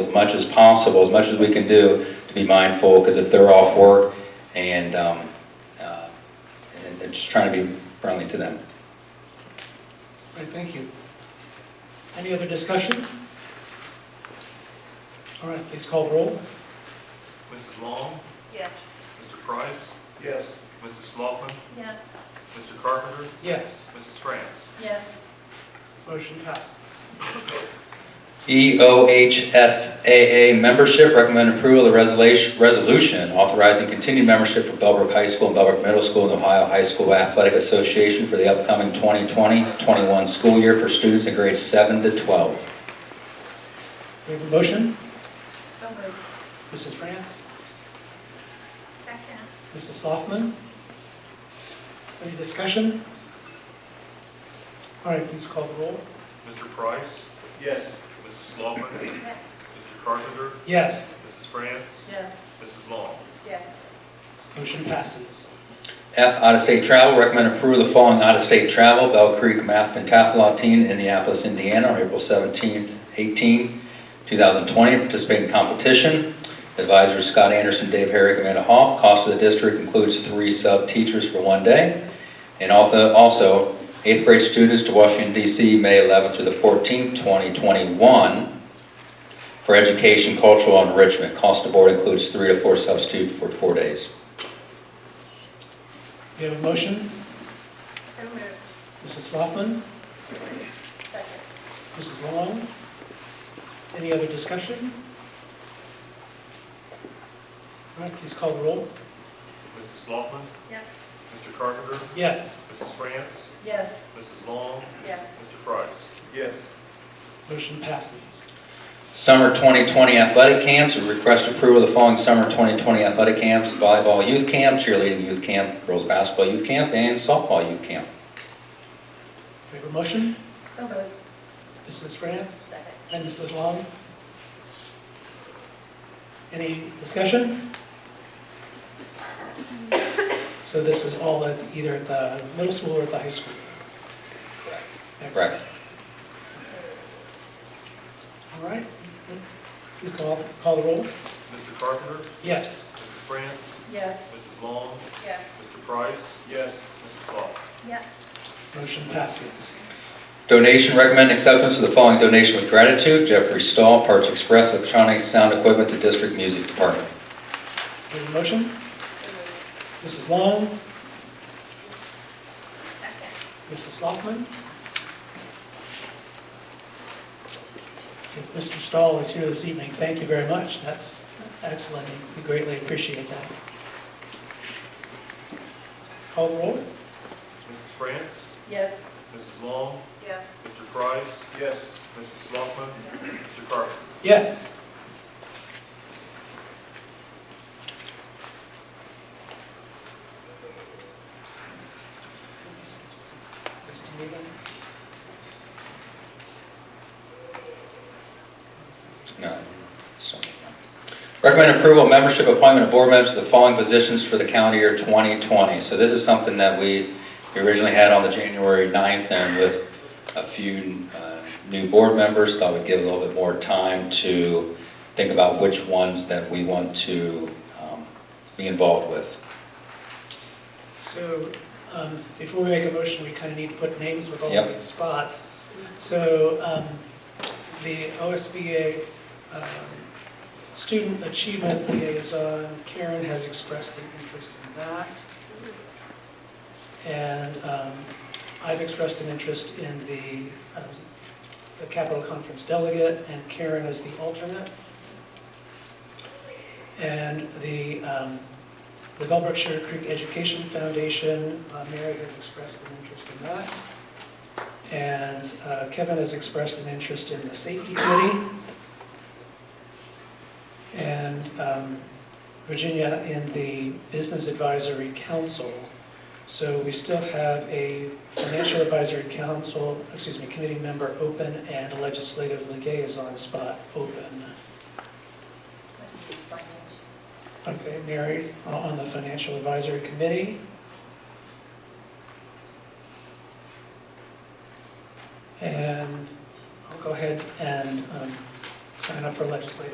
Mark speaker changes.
Speaker 1: as much as possible, as much as we can do, to be mindful, because if they're off work and, um, uh, and and just trying to be friendly to them.
Speaker 2: Great, thank you.
Speaker 3: Any other discussion? All right, please call roll.
Speaker 4: Mrs. Long,
Speaker 5: Yes.
Speaker 4: Mr. Price,
Speaker 2: Yes.
Speaker 4: Mrs. Sloughman,
Speaker 5: Yes.
Speaker 4: Mr. Carpenter,
Speaker 3: Yes,
Speaker 4: Mrs. France.
Speaker 5: Yes.
Speaker 3: motion passes.
Speaker 1: E EOHSAA membership, recommend approval of the resolution- resolution authorizing continued membership for Bellbrook High School and Bellbrook Middle School and Ohio High School Athletic Association for the upcoming 2020-21 school year for students in grades 7 to 12.
Speaker 3: We have a motion.
Speaker 5: So moved.
Speaker 3: Mrs. France,
Speaker 5: Second.
Speaker 3: Mrs. Sloughman. Any discussion? All right, please call the roll.
Speaker 4: Mr. Price,
Speaker 2: Yes.
Speaker 4: Mrs. Sloughman,
Speaker 5: Yes.
Speaker 4: Mr. Carpenter,
Speaker 3: Yes,
Speaker 4: Mrs. France,
Speaker 5: Yes.
Speaker 4: Mrs. Long.
Speaker 5: Yes.
Speaker 3: motion passes.
Speaker 1: F, out-of-state travel, recommend approval of the following out-of-state travel, Bell Creek Math Pentathlon Team, Indianapolis, Indiana, on April 17th, 18, 2020, participate in competition. Advisors Scott Anderson, Dave Herrick, Amanda Hoff. Cost of the district includes three sub-teachers for one day. And also- also, eighth grade students to Washington DC, May 11th through the 14th, 2021, for education, cultural enrichment. Cost of board includes three to four substitutes for four days.
Speaker 3: We have a motion.
Speaker 5: So moved.
Speaker 3: Mrs. Sloughman,
Speaker 5: Second.
Speaker 3: Mrs. Long. Any other discussion? All right, please call the roll.
Speaker 4: Mrs. Sloughman,
Speaker 5: Yes.
Speaker 4: Mr. Carpenter,
Speaker 3: Yes,
Speaker 4: Mrs. France,
Speaker 5: Yes.
Speaker 4: Mrs. Long,
Speaker 5: Yes.
Speaker 4: Mr. Price.
Speaker 2: Yes.
Speaker 3: motion passes.
Speaker 1: Summer 2020 athletic camps, we request approval of the following summer 2020 athletic camps, volleyball youth camp, cheerleading youth camp, girls basketball youth camp, and softball youth camp.
Speaker 3: We have a motion.
Speaker 5: So moved.
Speaker 3: Mrs. France
Speaker 5: Second.
Speaker 3: and Mrs. Long. Any discussion? So this is all at either at the middle school or at the high school? Excellent.
Speaker 1: Correct.
Speaker 3: All right. Please call, call the roll.
Speaker 4: Mr. Carpenter,
Speaker 3: Yes,
Speaker 4: Mrs. France,
Speaker 5: Yes.
Speaker 4: Mrs. Long,
Speaker 5: Yes.
Speaker 4: Mr. Price,
Speaker 2: Yes.
Speaker 4: Mrs. Sloughman.
Speaker 5: Yes.
Speaker 3: motion passes.
Speaker 1: Donation, recommend acceptance of the following donation with gratitude, Jeffrey Stahl, Parts Express Electronics Sound Equipment to District Music Department.
Speaker 3: We have a motion.
Speaker 5: So moved.
Speaker 3: Mrs. Long,
Speaker 5: Second.
Speaker 3: Mrs. Sloughman. If Mr. Stahl is here this evening, thank you very much. That's excellent. We greatly appreciate that. Call the roll?
Speaker 4: Mrs. France,
Speaker 5: Yes.
Speaker 4: Mrs. Long,
Speaker 5: Yes.
Speaker 4: Mr. Price,
Speaker 2: Yes.
Speaker 4: Mrs. Sloughman, Mr. Carpenter.
Speaker 3: Yes. This to me then?
Speaker 1: No. So- Recommend approval of membership appointment of board members to the following positions for the calendar year 2020. So this is something that we we originally had on the January 9th, and with a few uh, new board members, thought we'd give a little bit more time to think about which ones that we want to um, be involved with.
Speaker 3: So, um, before we make a motion, we kind of need to put names with all
Speaker 1: Yep.
Speaker 3: these spots. So, um, the OSBA um, Student Achievement Liaison, Karen has expressed an interest in that. And um, I've expressed an interest in the, um, the Capitol Conference Delegate, and Karen is the alternate. And the, um, the Bellbrook Sugar Creek Education Foundation, uh, Mary has expressed an interest in that. And uh, Kevin has expressed an interest in the safety committee. And um, Virginia in the Business Advisory Council. So we still have a Financial Advisory Council, excuse me, committee member open and a legislative liaison spot open. Okay, Mary, uh, on the Financial Advisory Committee. And I'll go ahead and um, sign up for legislative